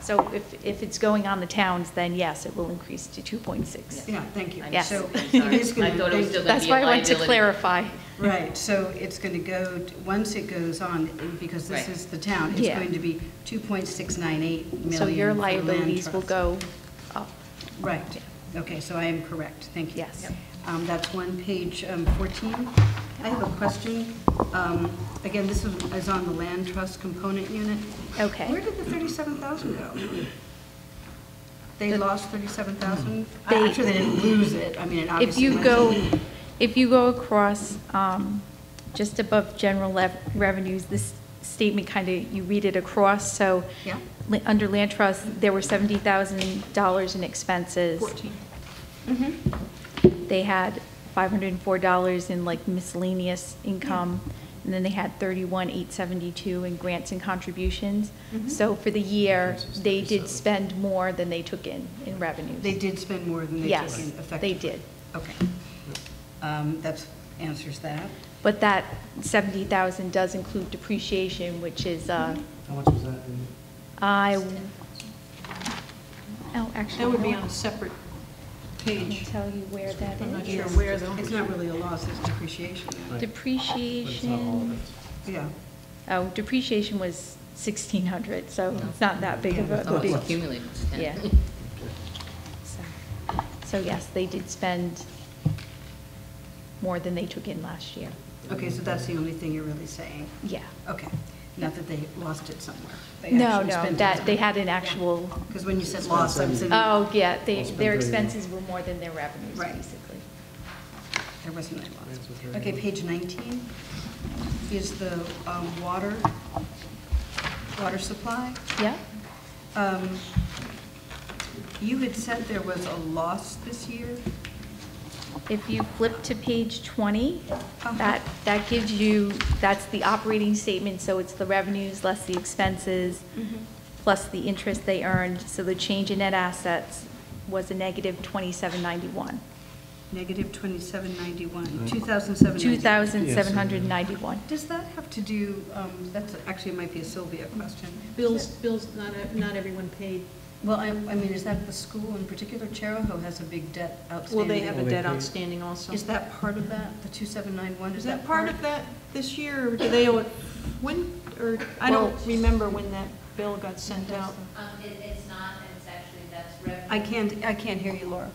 So if, if it's going on the towns, then yes, it will increase to 2.6. Yeah, thank you. I'm Yes. So sorry. it is going I thought it was still- to, That's why I want to liability. clarify. right, so it's going to go, t- once it goes on, because this Right. is the town, it's Yeah. going to be 2.698 million. So your for the land liabilities will trust. go up. Right, okay, so I am correct, thank you. Yes. Yep. Um, That's one, page um, 14. I have a question. Um, Again, this is is on the land trust component unit. Okay. Where did the 37,000 go? They The- lost 37,000? I- They- I'm sure they didn't lose it, I mean, it If obviously. you went- go, if you go across, um, just above general lev- revenues, this statement kind of, you read it across, so. Yeah. li- Under land trust, there were $70,000 in expenses. Mhm. Mm-hmm. They had $504 in like miscellaneous income, and then they had 31,872 in grants and contributions. Mm-hmm. Mhm. So for the year, they did spend more than they took in, in revenues. They did spend more than they took in Yes, effectively? they did. Okay. Um, That answers that. But that 70,000 does include depreciation, which is, uh, Mm-hmm. How much was that? in- I, oh, actually. That would be no, on a separate I can page. tell you where that is. I'm not sure where though. It's not really a loss, it's depreciation. Right. But it's not all of Depreciation, it. Yeah. oh, depreciation was 1,600, so Yeah. it's not that big of Yeah, a it's Oh, big. it's accumulated. Yeah. So- So yes, they did spend more than they took in last year. Okay, so that's the only thing you're really saying? Yeah. Okay, not that they lost it somewhere. They No, actually no, spent it that, they somewhere. had an actual, Because when you said loss, I was in, there oh, yeah, they, Spent their very- expenses were more than their revenues, Right. basically. wasn't any That's what's loss. right. Okay, page 19 is the um, water, water supply. Yeah, Um, You had said there was a loss this year? if you flip to page 20, Uh-huh. that, that gives you, that's the operating statement, so it's the revenues less the expenses, Mm-hmm. plus the interest they earned, so the change in net assets was a negative 2791. Negative 2791, 2007. 2,791. Does that have to do, um, that's, actually, it might be a Sylvia question. Bills, bills, not, e- not everyone paid. Well, I, I mean, is that the school in particular? Charahoe has a big debt outstanding. Well, they have a Well, they debt paid. outstanding also. Is that part of that, the 2791? Is that part of that this year, or do they owe it, when, or, I don't Well- remember when that bill got sent out. Um, it, it's not, and it's actually, that's I revenue. can't, I can't hear you, Laura.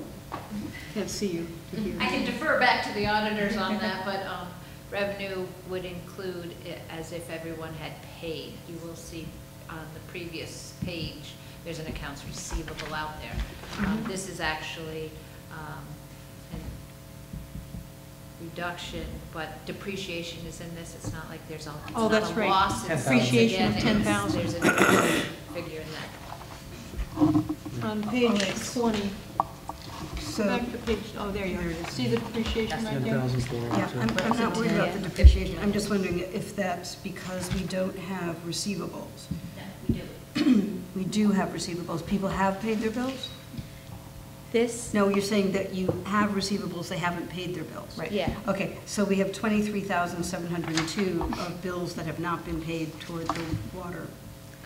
Can't see you. to Mm-hmm. hear. I can defer back to the auditors on that, but, um, revenue would include it as if everyone had paid. You will see on the previous page, there's an accounts receivable out there. Mm-hmm. Um, this is actually, um, a reduction, but depreciation is in this. It's not like there's a, it's Oh, not that's a right. loss. It's- Depreciation of again, it's- 10,000. There's a depreciation figure in that. On page 20, So, back to page, oh, there you There it are. is. See the depreciation right there? 10,400. yeah, I'm, I'm not worried about the Yeah. depreciation. I'm just wondering if that's because we don't have receivables. No, we do. We do have receivables. People have paid their bills? This, No, you're saying that you have receivables, they haven't paid their bills. Right. yeah, Okay, so we have 23,702 of bills that have not been paid toward the water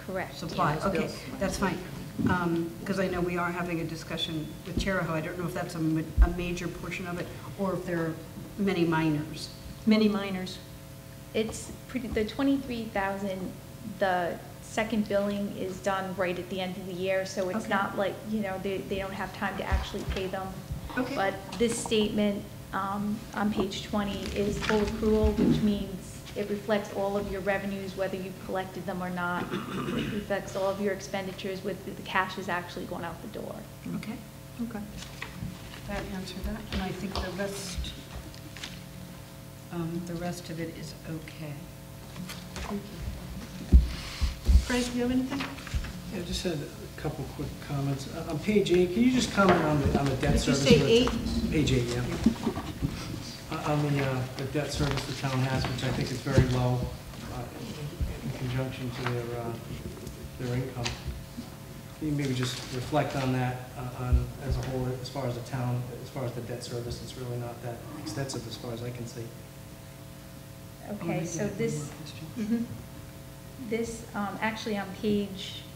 correct. supply. those Okay, bills. that's fine. Because I know we are having a discussion with Charahoe. I don't know if that's a ma- a major portion of it or if there are many minors. Many minors. It's pretty, the 23,000, the second billing is done right at the end of the year, so it's Okay. not like, you know, they, they don't have time to actually pay them. Okay. But this statement um, on page 20 is full accrual, which means it reflects all of your revenues, whether you've collected them or not. It reflects all of your expenditures, with the cash is actually going out the door. Okay, Okay. that answered that. And I think the rest, um, the rest of it is okay. Frank, do you have anything? Yeah, I just had a couple quick comments. Uh, On page eight, can you just comment on the, on the debt Did you service? say for- eight? Page eight, yeah. Uh, On the, uh, the debt service the town has, which I think is very low uh, in conjunction to their, uh, their income. Can you maybe just reflect on that, uh, on, as a whole, as far as the town, as far as the debt service? It's really not that extensive as far as I can see. Okay, so this, Mm-hmm. This, um, actually on page